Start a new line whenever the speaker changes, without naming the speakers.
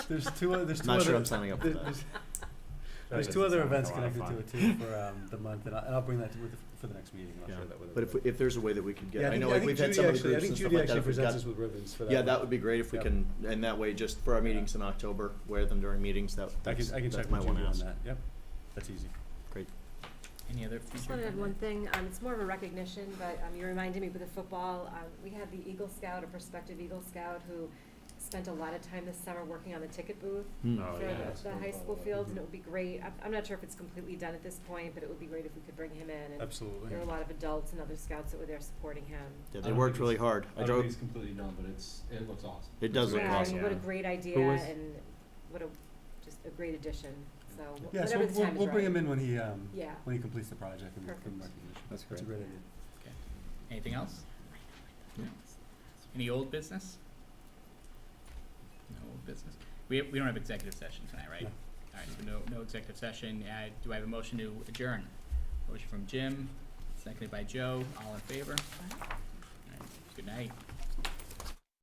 There's two. o- There's
I'm
two.
not
other,
sure I'm signing up for
there-
that.
There's,
That
there's two other
doesn't sound like
events
a lot of
connected to it
fun.
too for um, the month, and I'll, and I'll bring that to, with, for the next meeting. And I'll
Yeah.
share that with
But if,
everybody.
if there's a way that we could get,
yeah,
I
think-
know like
think
we've had
Judy
some of the
actually-
groups and
I think
stuff
Judy
like that.
actually
if we've
presents
got-
us with uh, ribbons for that.
Yeah,
one.
that would be great if we
Yep.
can, and that way, just for our meetings in October, wear them during meetings, that,
I can,
that's,
I can
that's
check
my
with
one
Judy on
ask.
that. Yep, that's easy.
Any other
Just
future
wanted to add one
comment?
thing, um, it's more of a recognition, but, um, you reminded me with the football, um, we had the Eagle Scout, a prospective Eagle Scout who spent a lot of time this summer working on the ticket booth
Oh,
Hmm.
for
yeah,
the,
that's
the
cool,
high
by the
school
way.
fields, and it would be great, I'm, I'm not sure if it's completely done at this point, but it would be great if we could bring him in, and
Absolutely.
there were a lot of adults and other scouts that were there supporting him.
Yeah,
I
they
don't
worked
think
really
it's-
hard. I
I don't think
drove,
it's completely done, but it's, it looks awesome.
it does look
Yeah,
awesome.
and what a great idea,
was-
and what a, just a great addition, so, wh-
Yeah, so we'll,
whatever the time is
we'll, we'll bring
right.
him in when he um,
Yeah.
when he completes the project and we'll give him
Perfect.
recognition.
That's
That's a
great.
great idea.
Anything else? Any old business? No old business. We, we don't have executive session tonight, right?
No.
All right, so no, no executive session. Uh, do I have a motion to adjourn? Motion from Jim, seconded by Joe. All in favor? All right, Good night.